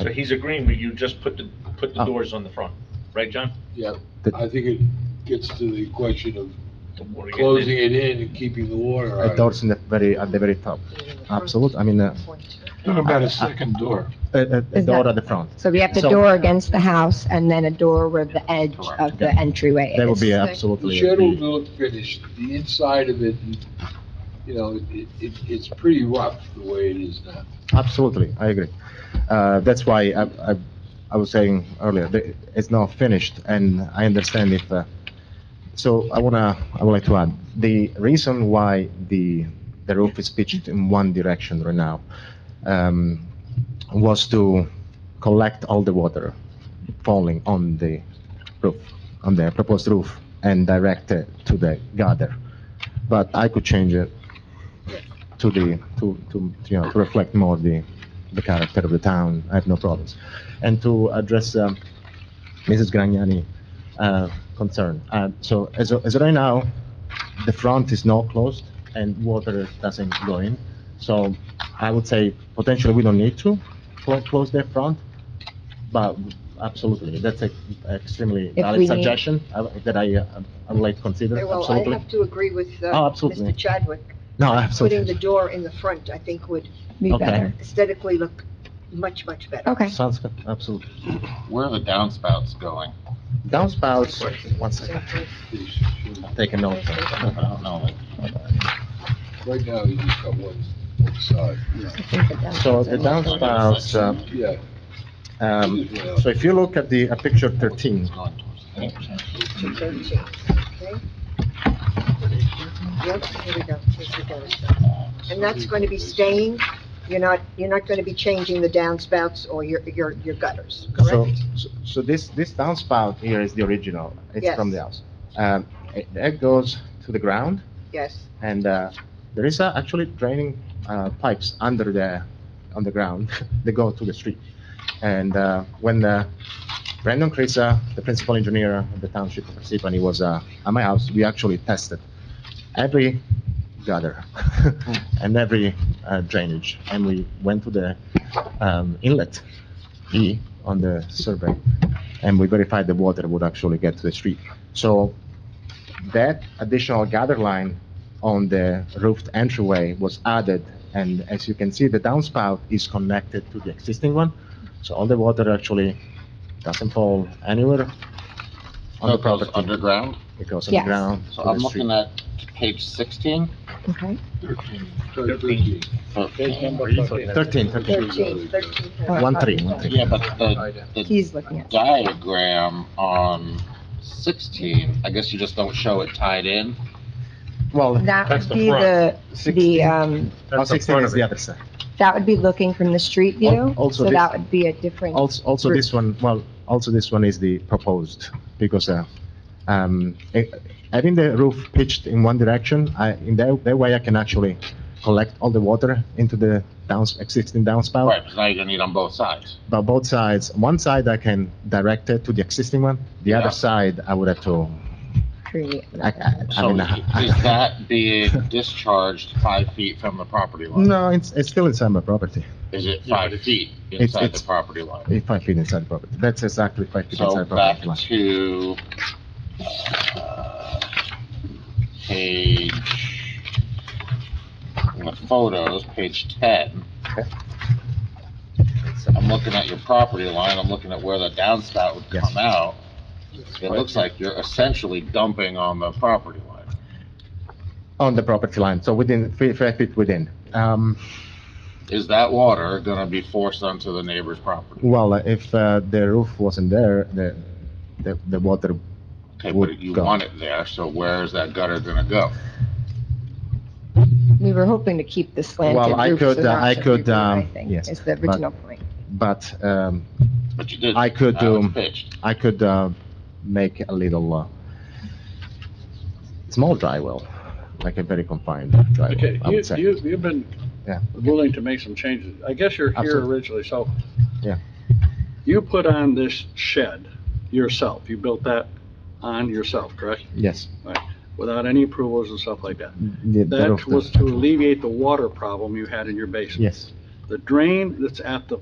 So he's agreeing with you, just put the, put the Oh. doors on the front, right, John? Yeah, The- I think it gets to the question of The water gets in. closing it in and keeping the water Uh, out. doors in the very, at the very top. Absolute, I mean, uh, Talking about a second door. a, a- a Is door that- at the front. So we have the So- door against the house and then a door where the edge of the entryway is. That would be The absolutely. shed will the- look finished, the inside of it, you know, it, it, it's pretty rough the way it is now. Absolutely, I agree. Uh, That's why I, I, I was saying earlier, that it's not finished, and I understand if, uh, so I wanna, I would like to add, the reason why the, the roof is pitched in one direction right now um, was to collect all the water falling on the roof, on the proposed roof, and direct it to the gutter. But I could change it to the, to, to, you know, to reflect more the, the character of the town, I have no problems. And to address, um, Mrs. Gragnani, uh, concern, uh, so as, of- as of right now, the front is not closed and water doesn't go in, so I would say potentially we don't need to clo- close the front, but absolutely, that's a extremely If valid we need- suggestion uh, that I, uh, I would like to consider, Well, I absolutely. have to agree with uh, Oh, absolutely. Mr. Chadwick. No, Putting the absolutely, door in the front, I think, would Be Okay. better. aesthetically look much, much better. Okay. sounds good, absolutely. Where are the downspouts going? Downspouts, one second. It's- Take a note. I don't know. Right now, you just got one, one side, So the downspouts, uh, yeah. um, so if you look at the, at picture thirteen, It's going towards the hill. Two thirteen, okay? Yep, here we go, here's the door. And that's going to be staying, you're not, you're not going to be changing the downspouts or your, your, your gutters, so, correct? so- so this, this downspout here is the original, it's Yes. from the house. Um, it, that goes to the ground, Yes, and, uh, there is uh, actually draining, uh, pipes under the, on the ground, they go to the street. And, uh, when, uh, Brandon Crisa, the principal engineer of the township of Parsippany was, uh, at my house, we actually tested every gutter and every uh, drainage, and we went to the um, inlet E on the survey, and we verified the water would actually get to the street. So that additional gutter line on the roofed entryway was added, and as you can see, the downspout is connected to the existing one, so all the water actually doesn't fall anywhere on So the it goes property. underground? It goes underground to So the I'm street. looking at page sixteen, Okay. Thirteen. thirteen. Thirteen, thirteen. thirteen, thirteen. One three, one three. Yeah, but the, the He's looking at. diagram on sixteen, I guess you just don't show it tied in? Well, That That's would the be the, the, 16. um, oh, 16 is the other side. that would be looking from the street view. also So this- that would be a different, Also, also this one, well, also this one is the proposed, because, uh, um, eh, having the roof pitched in one direction, I, in that, that way I can actually collect all the water into the downs, existing downspout. Right, because now you're gonna need on both sides. But both sides, one side I can direct it to the existing one, the Yeah. other side I would have to, create. I, I, I So mean, is I- that being discharged five feet from the property line? no, it's, it's still inside my property, Is it five feet it's- inside the it's- property line? eh, five feet inside the property, that's exactly five feet So inside the back property line. to, uh, page, in the photos, page ten. I'm looking at your property line, I'm looking at where the downspout would Yes. come out. It looks like you're essentially dumping on the property line. On the property line, so within, fi- five feet within. Um, Is that water gonna be forced onto the neighbor's property? Well, uh, if uh, the roof wasn't there, the, the, the water, Okay, Would but you go. want it there, so where is that gutter gonna go? We were hoping to keep the slanted Well, I roof. could, so uh, that I should could, be good, I um, think, yes, Is the but- original point. but um, But you did. I could, Now it's um, pitched. I could uh, make a little uh, small dry well, like a very confined dry well, Okay, I you, would say. you, you've been Yeah. willing to make some changes. I guess you're here Absolutely. originally, so. Yeah. You put on this shed yourself. You built that on yourself, correct? Yes. Without any approvals and stuff like that. the- the roof That does. was to alleviate the water problem you had in your basement. Yes. The drain that's at the